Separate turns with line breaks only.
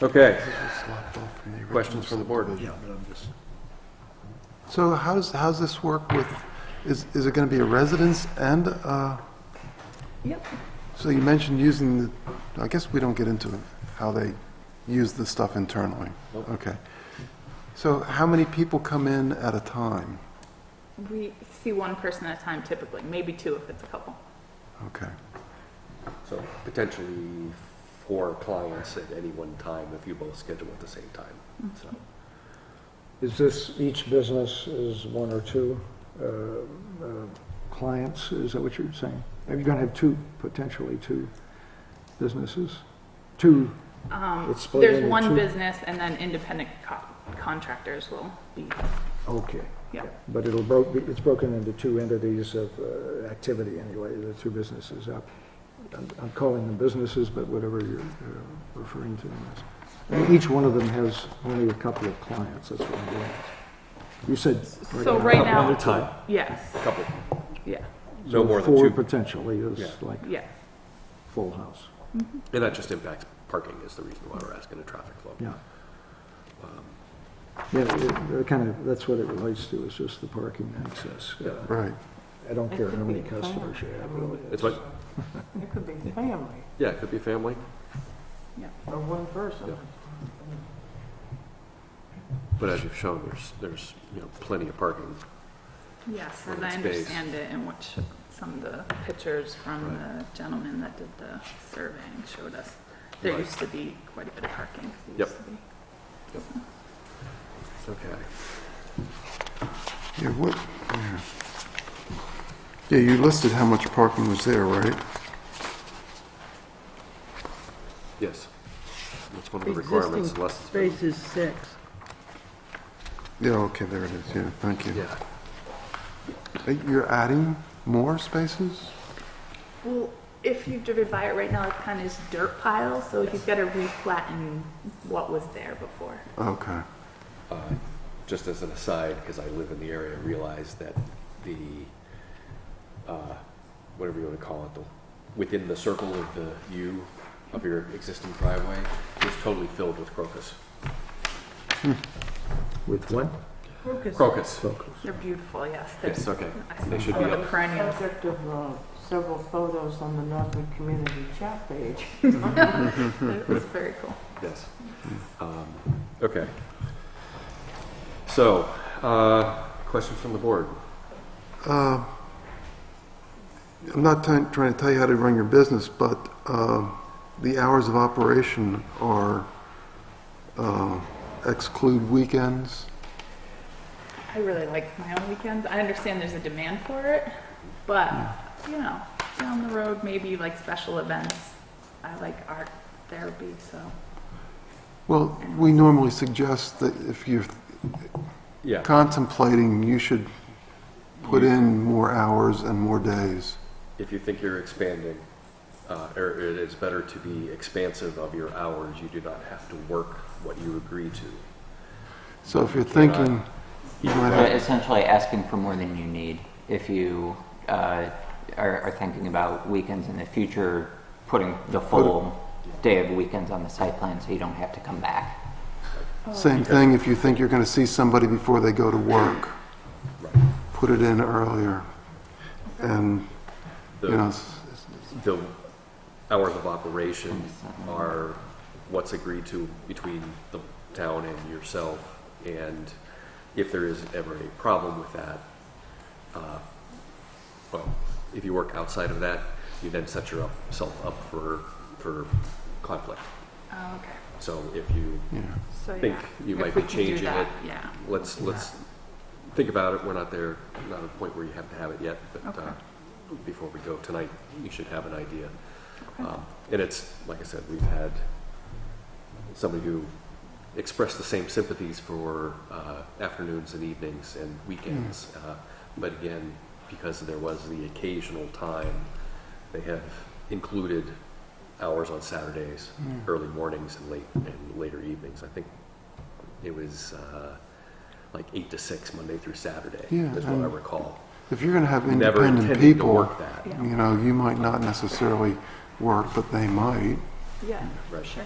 Okay,
Questions from the board?
Yeah, but I'm just,
So how's, how's this work with, is, is it going to be a residence and, uh,
Yep.
so you mentioned using, the I guess we don't get into how they use the stuff internally. Okay. So how many people come in at a time?
We see one person at a time typically, maybe two if it's a couple.
Okay.
So potentially four clients at any one time if you both schedule at the same time, so.
is this, each business is one or two uh, uh, clients? Is that what you're saying? Are you going to have two, potentially two businesses? Two,
Um,
It's split
There's
into
one
two?
business and then independent co- contractors will be,
okay.
yeah.
But it'll broke, it's broken into two entities of uh, activity anyway, the two businesses. Uh, I'm I'm calling them businesses, but whatever you're uh, referring to them as. And each one of them has only a couple of clients, that's what I'm doing. You said.
So right now.
One at a time.
Yes,
Couple,
yeah,
no
So
more than
Four
two.
potentially
Yeah.
is like
yeah.
full house,
And that just impacts parking is the reason why we're asking a traffic flow.
yeah. Yeah, it- it kind of, that's what it relates to, is just the parking access. Uh,
Right.
I don't care how many customers you have, really.
It's like,
It could be family,
yeah, it could be family.
or one person.
But as you've shown, there's, there's, you know, plenty of parking.
Yes,
For
as
the
I
space.
understand it, and what sh- some of the pictures from the gentleman that did the surveying showed us, there
Right.
used to be quite a bit of parking. There
Yep.
used to be.
Okay.
Yeah, what, yeah. yeah, you listed how much parking was there, right?
Yes. That's one of the
Existing
requirements unless it's been.
Space is six.
Yeah, okay, there it is, yeah, thank you.
Yeah.
Uh, You're adding more spaces?
Well, if you've driven by it right now, it's kind of this dirt pile, so he's got to re-flatten what was there before.
Okay,
Uh, Just as an aside, because I live in the area, I realize that the, uh, whatever you want to call it, the, within the circle of the U of your existing driveway is totally filled with crocus.
Hmm. With what?
Crocus.
Focus.
They're beautiful, yes. They're
Yes, okay.
I
They should
saw
be
the
up.
perennials.
Subject of uh, several photos on the Northwood Community chat page.
It was very cool.
Yes. Um, Okay. So, uh, questions from the board?
I'm not trying, trying to tell you how to run your business, but, uh, the hours of operation are, uh, exclude weekends?
I really like my own weekends. I understand there's a demand for it, but,
Hmm.
you know, down the road, maybe like special events. I like art therapy, so.
Well, we normally suggest that if you're
Yeah.
contemplating, you should put in more hours and more days.
if you think you're expanding, uh, or it is better to be expansive of your hours, you do not have to work what you agree to.
So if you're thinking, you might
But
have,
essentially asking for more than you need. If you uh, are, are thinking about weekends in the future, putting the full day of weekends on the site plan so you don't have to come back.
same thing, if you think you're going to see somebody before they go to work,
Right.
put it in earlier. And, you know,
The,
s- s-
the hours of operation are what's agreed to between the town and yourself. And if there is ever a problem with that, uh, well, if you work outside of that, you then set yourself up for, for conflict.
Oh, okay.
So if you
yeah.
So, yeah.
think you
If
might
we
be
can do
changing
that,
it,
Yeah.
let's, let's think about it. We're not there, not at a point where you have to have it yet, but
Okay.
uh, before we go tonight, you should have an idea.
Okay.
Um, And it's, like I said, we've had somebody who expressed the same sympathies for uh, afternoons and evenings and weekends. Uh, But again, because there was the occasional time, they have included hours on Saturdays, early mornings and late, and later evenings. I think it was uh, like eight to six, Monday through Saturday,
Yeah,
is what I
and
recall.
If you're going to have
Never
independent
intended to
people,
work that.
Yeah.
you know, you might not necessarily work, but they might.
Yeah,
Hmm. Right.
sure.